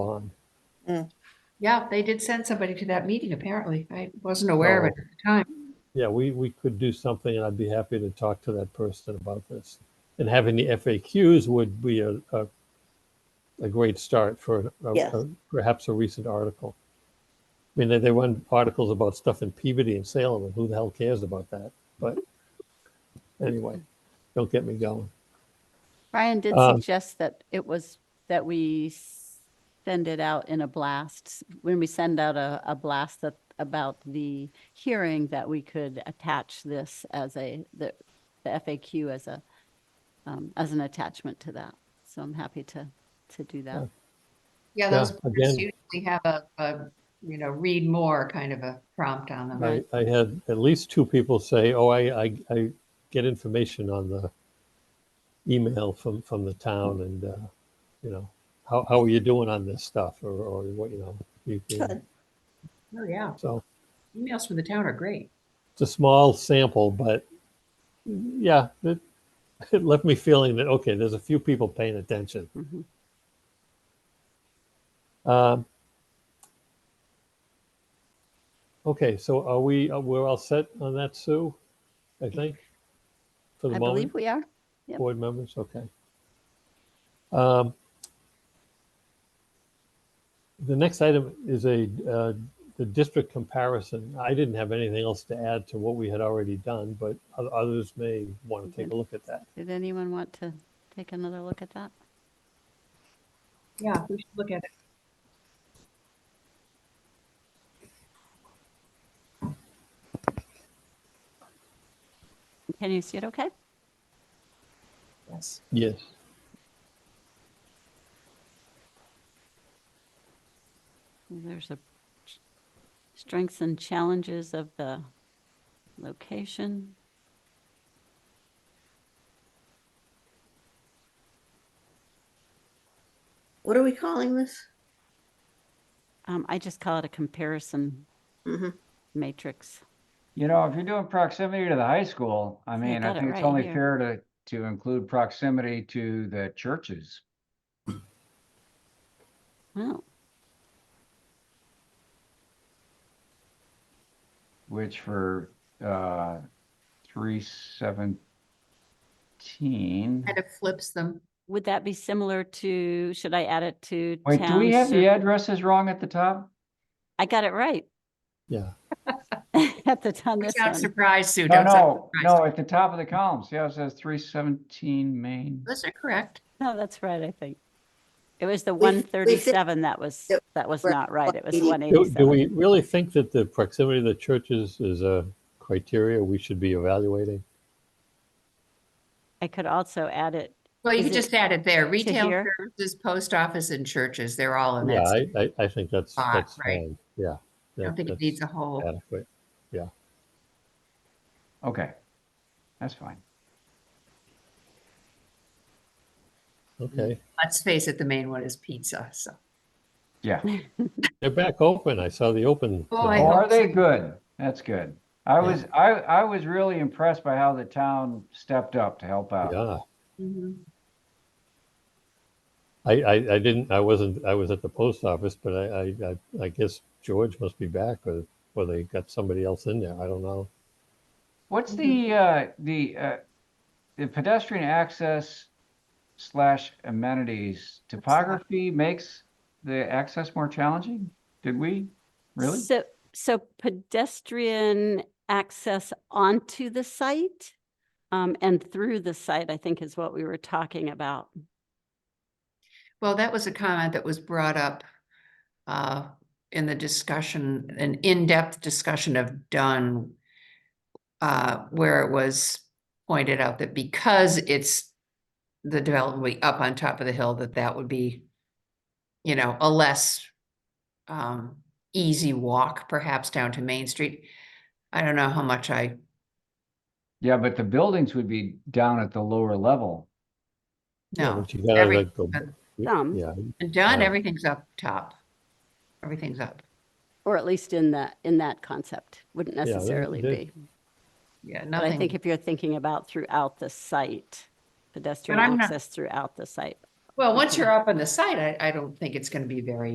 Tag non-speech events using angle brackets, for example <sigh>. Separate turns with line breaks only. on.
Yeah, they did send somebody to that meeting, apparently. I wasn't aware of it
So-
at the time.
Yeah, we, we could do something and I'd be happy to talk to that person about this. And having the FAQs would be a, a, a great start for a-
Yes.
a- perhaps a recent article. I mean, they, they run articles about stuff in Peabody and Salem and who the hell cares about that? But anyway, don't get me going.
Brian did
Um,
suggest that it was, that we s- send it out in a blast. When we send out a, a blast that, about the hearing, that we could attach this as a, the the FAQ as a, um, as an attachment to that. So I'm happy to, to do that.
Yeah, those
Yeah,
boards
again-
usually have a, a, you know, read more kind of a prompt on them.
I, I had at least two people say, oh, I, I, I get information on the email from, from the town and, uh, you know, how, how are you doing on this stuff or, or what, you know? you can-"
Good.
Oh, yeah.
So
Emails from the town are great.
it's a small sample, but yeah, it, it left me feeling that, okay, there's a few people paying attention.
Mhm.
Um, okay, so are we, uh, we're all set on that, Sue? I think? For the
I
moment?
believe we are. Yep.
Board members, okay. Um, The next item is a, uh, the district comparison. I didn't have anything else to add to what we had already done, but o- others may want to
Mm-hmm.
take a look at that.
Did anyone want to take another look at that?
Yeah, we should look at it.
Can you see it okay?
Yes.
Yes.
There's a ch- strengths and challenges of the location.
What are we calling this?
Um, I just call it a comparison
Mhm.
matrix.
You know, if you're doing proximity to the high school, I mean,
got
I
it
think it's
right
only
here.
fair to, to include proximity to the churches.
Wow.
Which for, uh, three seventeen.
Kind of flips them.
Would that be similar to, should I add it to
Wait, do
town?
we have the
ser-
addresses wrong at the top?
I got it right <laughs>
Yeah,
at the town this
Sound
one.
surprised, Sue.
No,
don't sound
no,
surprised.
no, at the top of the columns. Yeah, it says three seventeen Main.
Those are correct.
No, that's right, I think. It was the
We- we
one
think
thirty-seven that was,
that
that was
we're
not right. It was
180.
one
do do
eighty-seven.
we really think that the proximity to the churches is a criteria we should be evaluating?
I could also add it,
Well, you
Is
could
it
just add it there. Retail
here?
services, post office and churches, they're all in
Yeah,
that.
I, I, I think that's,
Ah,
that's
right.
fine, yeah.
I don't think it needs a whole.
Adequate,
Okay, that's fine.
okay.
Let's face it, the main one is pizza, so.
Yeah.
They're back open, I saw the open.
Oh, I
Oh,
hope
are they
so.
good? That's good. I
Yeah.
was, I, I was really impressed by how the town stepped up to help out.
Yeah.
Mhm.
I, I, I didn't, I wasn't, I was at the post office, but I, I, I, I guess George must be back or, or they got somebody else in there. I don't know.
What's the, uh, the, uh, the pedestrian access slash amenities topography makes the access more challenging? Did we? Really?
So, so pedestrian access onto the site um, and through the site, I think is what we were talking about.
Well, that was a comment that was brought up uh, in the discussion, an in-depth discussion of Dunn, uh, where it was pointed out that because it's the development way up on top of the hill, that that would be, you know, a less um, easy walk perhaps down to Main Street. I don't know how much I,
Yeah, but the buildings would be down at the lower level.
know.
But you gotta,
every-
like, go-
Some.
Yeah,
And Dunn,
Yeah.
everything's up top. Everything's up.
Or at least in the, in that concept, wouldn't
that-
necessarily
that-
be.
Yeah,
But I think
nothing.
if you're thinking about throughout the site, pedestrian
I'm not-
access throughout the site.
Well, once you're up on the site, I, I don't think it's going to be very